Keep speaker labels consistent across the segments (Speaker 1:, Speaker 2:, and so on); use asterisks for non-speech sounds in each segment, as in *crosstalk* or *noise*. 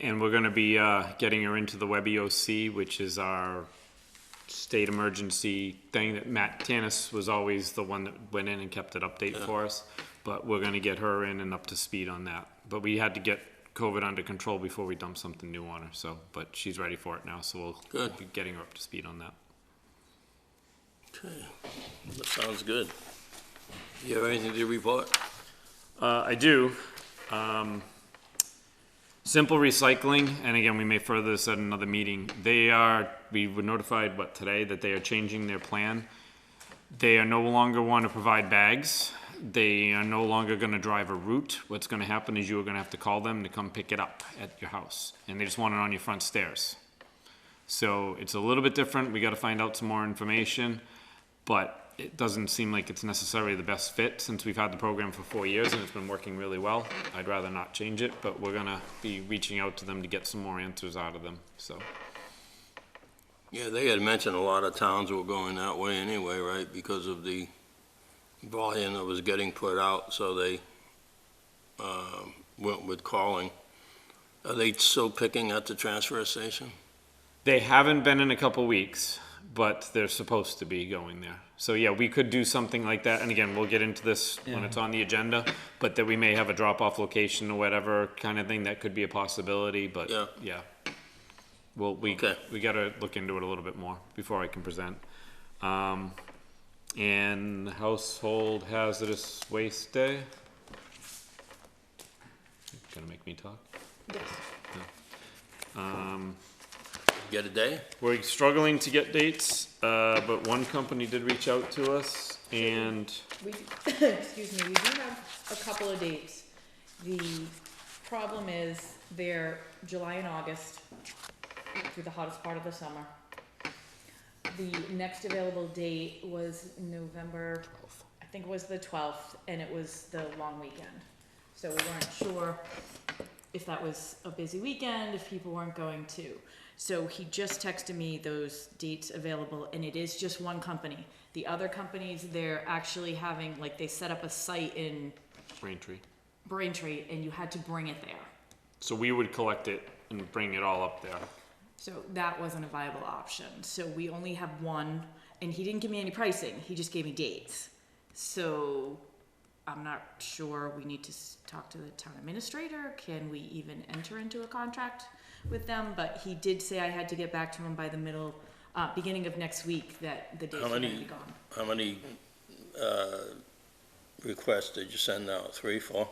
Speaker 1: And we're gonna be, uh, getting her into the WebEOC, which is our state emergency thing that Matt Tanis was always the one that went in and kept it update for us. But we're gonna get her in and up to speed on that. But we had to get COVID under control before we dumped something new on her, so, but she's ready for it now, so we'll
Speaker 2: Good.
Speaker 1: be getting her up to speed on that.
Speaker 2: Okay, that sounds good. You have anything to report?
Speaker 1: Uh, I do. Um, Simple Recycling, and again, we may further this at another meeting. They are, we were notified, what, today, that they are changing their plan. They are no longer want to provide bags. They are no longer going to drive a route. What's going to happen is you are going to have to call them to come pick it up at your house, and they just want it on your front stairs. So it's a little bit different. We got to find out some more information, but it doesn't seem like it's necessarily the best fit since we've had the program for four years and it's been working really well. I'd rather not change it, but we're gonna be reaching out to them to get some more answers out of them. So
Speaker 2: Yeah, they had mentioned a lot of towns were going that way anyway, right, because of the volume that was getting put out, so they, um, went with calling. Are they still picking at the transfer station?
Speaker 1: they haven't been in a couple weeks, but they're supposed to be going there. So yeah, we could do something like that. And again, we'll get into this when it's on the agenda, but that we may have a drop off location or whatever kind of thing that could be a possibility. But
Speaker 2: Yeah.
Speaker 1: yeah. Well, we,
Speaker 2: Okay.
Speaker 1: we gotta look into it a little bit more before I can present. Um, and household hazardous waste day. Gonna make me talk? Yes. Um,
Speaker 2: Get a day?
Speaker 1: we're struggling to get dates, uh, but one company did reach out to us and
Speaker 3: We, do- *laughs* excuse me, we do have a couple of dates. The problem is they're July and August through the hottest part of the summer. The next available date was November, I think it was the twelfth, and it was the long weekend. So we weren't sure if that was a busy weekend, if people weren't going to. So he just texted me those dates available, and it is just one company. The other companies, they're actually having, like, they set up a site in
Speaker 1: Braintree.
Speaker 3: Braintree, and you had to bring it there.
Speaker 1: So we would collect it and bring it all up there.
Speaker 3: So that wasn't a viable option. So we only have one, and he didn't give me any pricing. He just gave me dates. So I'm not sure. We need to s- talk to the town administrator. Can we even enter into a contract with them? But he did say I had to get back to him by the middle, uh, beginning of next week that the dates
Speaker 2: How
Speaker 3: were going to
Speaker 2: many-
Speaker 3: be gone.
Speaker 2: How many, uh, requests did you send out? Three, four?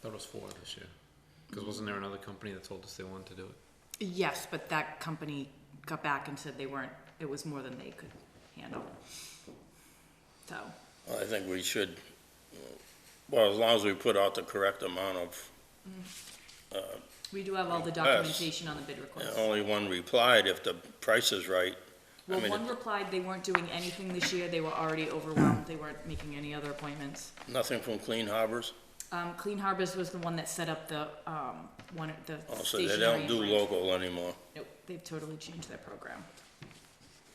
Speaker 1: That was four this year. Cause wasn't there another company that told us they wanted to do it?
Speaker 3: Yes, but that company got back and said they weren't. It was more than they could handle. So
Speaker 2: Well, I think we should, well, as long as we put out the correct amount of
Speaker 3: we do have all the
Speaker 2: Yes.
Speaker 3: documentation on the bid request.
Speaker 2: And Only one replied if the price is right. I
Speaker 3: Well,
Speaker 2: mean,
Speaker 3: one
Speaker 2: it-
Speaker 3: replied they weren't doing anything this year, they were already overwhelmed, they weren't making any other appointments.
Speaker 2: nothing from Clean Harbors.
Speaker 3: Um, Clean Harbors was the one that set up the, um, one, of the
Speaker 2: Also,
Speaker 3: stationary.
Speaker 2: Oh, they don't do
Speaker 3: entrance.
Speaker 2: local anymore.
Speaker 3: Nope, they've totally changed their program.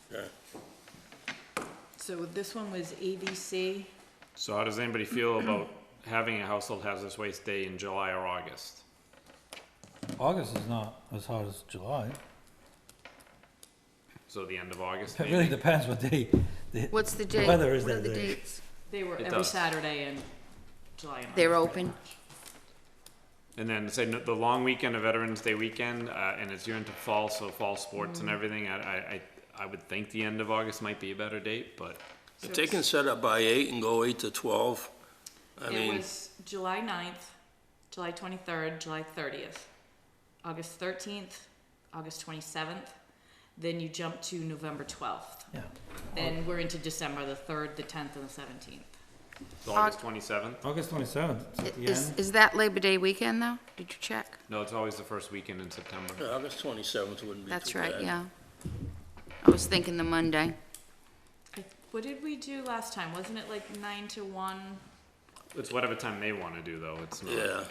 Speaker 2: Yeah.
Speaker 3: So this one was ABC,
Speaker 1: So how does anybody feel about having a household hazardous waste day in July or August?
Speaker 4: August is not as hot as July.
Speaker 1: So the end of August
Speaker 4: It really
Speaker 1: maybe?
Speaker 4: depends what day. the-
Speaker 5: What's the date?
Speaker 4: weather is
Speaker 5: What are
Speaker 4: that
Speaker 5: the
Speaker 4: day.
Speaker 5: dates?
Speaker 3: they were
Speaker 1: It
Speaker 3: every
Speaker 1: does.
Speaker 3: Saturday in July and August.
Speaker 5: They're open.
Speaker 1: And then say no- the long weekend of Veterans Day weekend, uh, and it's you're into fall, so fall sports and everything, I, I, I, I would think the end of August might be a better date, but
Speaker 3: So
Speaker 2: If they can set up by eight and go eight to twelve, I
Speaker 3: It
Speaker 2: mean,
Speaker 3: was July ninth, July twenty-third, July thirtieth, August thirteenth, August twenty-seventh, then you jump to November twelfth.
Speaker 4: Yeah.
Speaker 3: Then we're into December, the third, the tenth, and the seventeenth.
Speaker 1: it's August twenty-seventh?
Speaker 4: August twenty-seventh, it's at the
Speaker 5: Is,
Speaker 4: end.
Speaker 5: is that Labor Day weekend, though? Did you check?
Speaker 1: No, it's always the first weekend in September.
Speaker 2: yeah, August twenty-seventh wouldn't be too bad.
Speaker 5: That's right, yeah. I was thinking the Monday.
Speaker 3: What did we do last time? Wasn't it like nine to one?
Speaker 1: It's whatever time they want to do, though. It's not
Speaker 2: Yeah,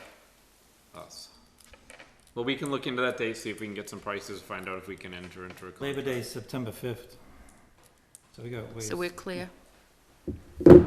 Speaker 1: us. Well, we can look into that date, see if we can get some prices, find out if we can enter into a contract.
Speaker 4: Labor Day is September fifth. So we got.
Speaker 5: So we're clear.